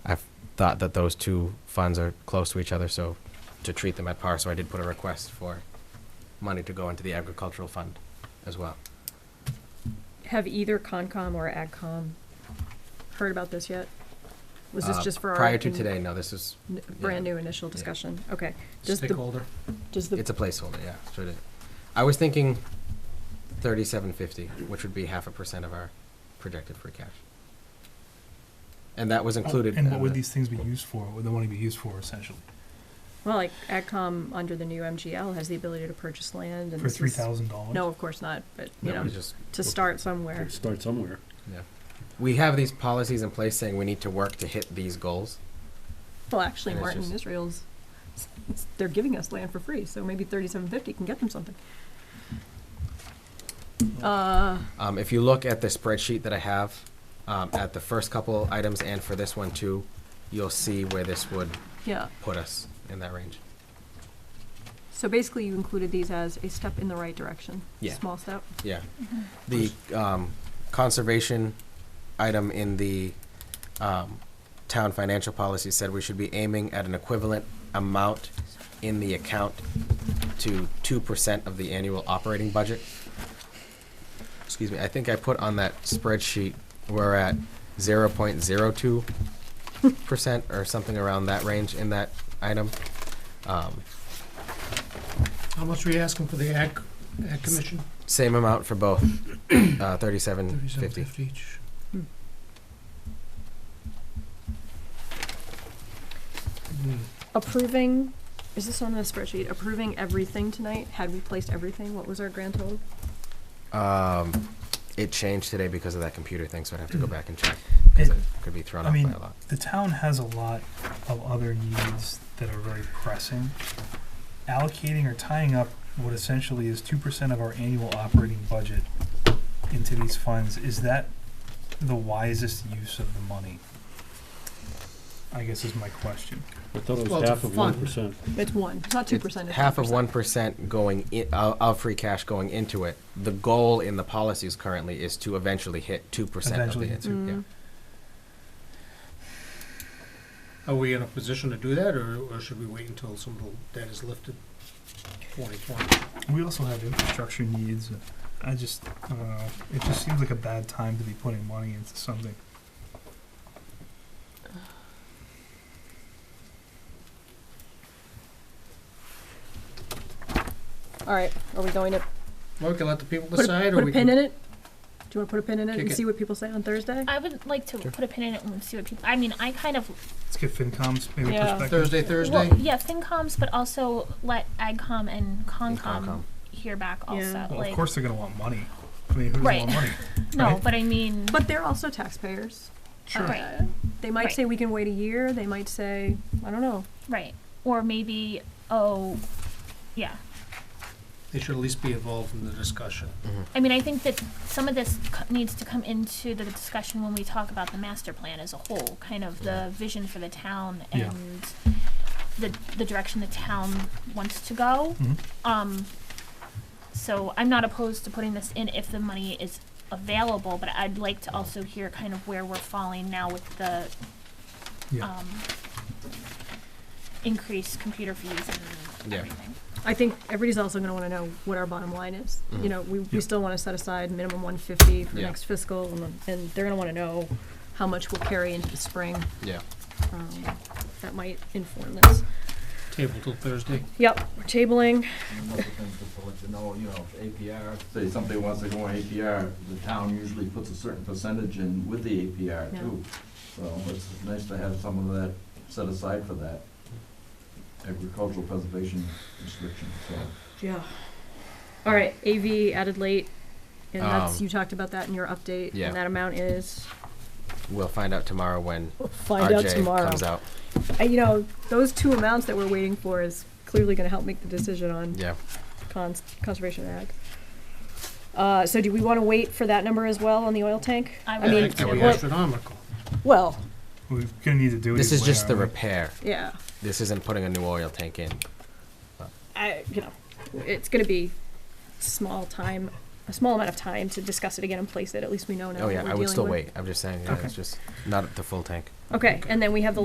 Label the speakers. Speaker 1: thought that those two funds are close to each other, so to treat them at par, so I did put a request for money to go into the agricultural fund as well.
Speaker 2: Have either Concom or AgCom heard about this yet? Was this
Speaker 1: Uh,
Speaker 2: just for our?
Speaker 1: Prior to
Speaker 2: in-
Speaker 1: today, no, this is,
Speaker 2: n- Brand new initial discussion, okay. Does the-
Speaker 3: Stakeholder.
Speaker 2: Does the,
Speaker 1: it's a placeholder, yeah. so it- I was thinking thirty-seven fifty, which would be half a percent of our projected free cash. And that was included.
Speaker 3: Oh, And
Speaker 1: in
Speaker 3: what would
Speaker 1: the-
Speaker 3: these things be used for? What would the money be used for essentially?
Speaker 2: well, like AgCom under the new MGL has the ability to purchase land and.
Speaker 3: For
Speaker 2: this
Speaker 3: three
Speaker 2: is-
Speaker 3: thousand dollars?
Speaker 2: No, of course not, but, you
Speaker 1: that
Speaker 2: know,
Speaker 1: was just-
Speaker 2: to start somewhere.
Speaker 4: Start somewhere.
Speaker 1: We have these policies in place saying we need to work to hit these goals.
Speaker 2: Well, actually,
Speaker 1: And it's
Speaker 2: Martin
Speaker 1: just-
Speaker 2: Israel's, they're giving us land for free, so maybe thirty-seven fifty can get them something. Uh,
Speaker 1: Um, if you look at the spreadsheet that I have, um, at the first couple items and for this one too, you'll see where this would
Speaker 2: yeah,
Speaker 1: put us in that range.
Speaker 2: so basically you included these as a step in the right direction.
Speaker 1: Yeah.
Speaker 2: Small step.
Speaker 1: Yeah. The, um, conservation item in the, um, town financial policy said we should be aiming at an equivalent amount in the account to two percent of the annual operating budget. Excuse me, I think I put on that spreadsheet, we're at zero point zero two percent or something around that range in that item. Um,
Speaker 5: How much were you asking for the ag, ag commission?
Speaker 1: same amount for both, uh, thirty-seven
Speaker 5: Thirty-seven
Speaker 1: fifty.
Speaker 5: fifty each.
Speaker 2: Hmm.
Speaker 5: Hmm.
Speaker 2: Approving, is this on the spreadsheet? Approving everything tonight? Had we placed everything? What was our grand total?
Speaker 1: Um, it changed today because of that computer thing, so I'd have to go back and check,
Speaker 3: Mm. It-
Speaker 1: because it could be thrown
Speaker 3: I
Speaker 1: off by
Speaker 3: mean-
Speaker 1: a lot.
Speaker 3: The town has a lot of other needs that are very pressing. Allocating or tying up what essentially is two percent of our annual operating budget into these funds, is that the wisest use of the money? I guess is my question.
Speaker 4: I thought it
Speaker 5: Well,
Speaker 4: was
Speaker 5: it's a
Speaker 4: half of one
Speaker 5: fund.
Speaker 4: percent.
Speaker 2: It's one. It's not two percent.
Speaker 1: It's Half of one percent going i- of, of free cash going into it. The goal in the policies currently is to eventually hit two percent of
Speaker 3: Eventually
Speaker 1: the,
Speaker 3: hit
Speaker 1: answer, yeah.
Speaker 5: Are we in a position to do that, or, or should we wait until some of the debt is lifted? Twenty twenty.
Speaker 3: We also have infrastructure needs. I just, I don't know, it just seems like a bad time to be putting money into something.
Speaker 2: All right, are we going to
Speaker 5: Well, we can let the people
Speaker 2: put
Speaker 5: decide,
Speaker 2: a,
Speaker 5: or
Speaker 2: put a
Speaker 5: we
Speaker 2: pin in
Speaker 5: can.
Speaker 2: it? Do you want to put a pin in it
Speaker 5: Kick
Speaker 2: and
Speaker 5: it.
Speaker 2: see what people say on Thursday?
Speaker 6: I would like to
Speaker 1: Sure.
Speaker 6: put a pin in it and see what people. I mean, I kind of
Speaker 3: Let's get FinCom's maybe
Speaker 2: Yeah.
Speaker 3: perspective.
Speaker 5: Thursday, Thursday?
Speaker 6: well, yeah, FinComs, but also let AgCom and
Speaker 1: And
Speaker 6: ConCom
Speaker 1: Concom.
Speaker 6: hear back also.
Speaker 2: Yeah.
Speaker 3: Well,
Speaker 6: like,
Speaker 3: of course they're gonna want money. I mean, who doesn't
Speaker 6: Right.
Speaker 3: want money?
Speaker 6: no,
Speaker 3: right?
Speaker 6: but I mean,
Speaker 2: But they're also taxpayers. Uh,
Speaker 3: Sure.
Speaker 6: right,
Speaker 2: They might
Speaker 6: Right.
Speaker 2: say we can wait a year. They might say I don't know.
Speaker 6: right, or maybe oh, yeah.
Speaker 5: They should at least be involved in the discussion.
Speaker 6: I mean, I think that some of this co- needs to come into the discussion when we talk about the master plan as a whole, kind of the vision for the town
Speaker 3: Yeah.
Speaker 6: and the, the direction the town wants to go.
Speaker 3: Mhm.
Speaker 6: Um, so I'm not opposed to putting this in if the money is available, but I'd like to also hear kind of where we're falling now with the,
Speaker 3: Yeah.
Speaker 6: um, increased computer fees and
Speaker 1: Yeah.
Speaker 6: everything.
Speaker 2: I think everybody's also going to want to know what our bottom line is. You
Speaker 1: Mhm.
Speaker 2: know, we, we
Speaker 3: Yeah.
Speaker 2: still want to set aside minimum 150 for the
Speaker 1: Yeah.
Speaker 2: next fiscal, and, then- and they're going to want to know how much we'll carry into the spring.
Speaker 1: Yeah.
Speaker 2: Um, that might inform this.
Speaker 5: Table till Thursday.
Speaker 2: Yep, we're tabling.
Speaker 7: One of the things the board to know, you know, if APR, say somebody wants to go on APR, the town usually puts a certain percentage in with the APR
Speaker 2: Yeah.
Speaker 7: too. So it's nice to have some of that set aside for that agricultural preservation restriction, so.
Speaker 2: Yeah. All right, AV added late, and that's
Speaker 1: Um,
Speaker 2: you talked about that in your update,
Speaker 1: yeah.
Speaker 2: and that amount is.
Speaker 1: We'll find out tomorrow when
Speaker 2: We'll find out
Speaker 1: RJ
Speaker 2: tomorrow.
Speaker 1: comes out.
Speaker 2: Uh, you know, those two amounts that we're waiting for is clearly going to help make the decision on
Speaker 1: Yeah.
Speaker 2: cons- conservation ag. Uh, so do we want to wait for that number as well on the oil tank?
Speaker 6: I
Speaker 2: I
Speaker 6: would
Speaker 2: mean,
Speaker 5: think that'd
Speaker 1: what-
Speaker 5: be astronomical.
Speaker 2: well,
Speaker 3: We're gonna need to do it.
Speaker 1: This
Speaker 3: either
Speaker 1: is
Speaker 3: way,
Speaker 1: just the
Speaker 3: aren't we?
Speaker 1: repair.
Speaker 2: yeah,
Speaker 1: This isn't putting a new oil tank in.
Speaker 2: I, you know, it's going to be small time, a small amount of time to discuss it again and place it. At least we know now.
Speaker 1: Oh,
Speaker 2: what
Speaker 1: yeah,
Speaker 2: we're
Speaker 1: I would
Speaker 2: dealing
Speaker 1: still
Speaker 2: with.
Speaker 1: wait. I'm just saying, yeah,
Speaker 3: Okay.
Speaker 1: it's just not the full tank.
Speaker 2: Okay, and then we have the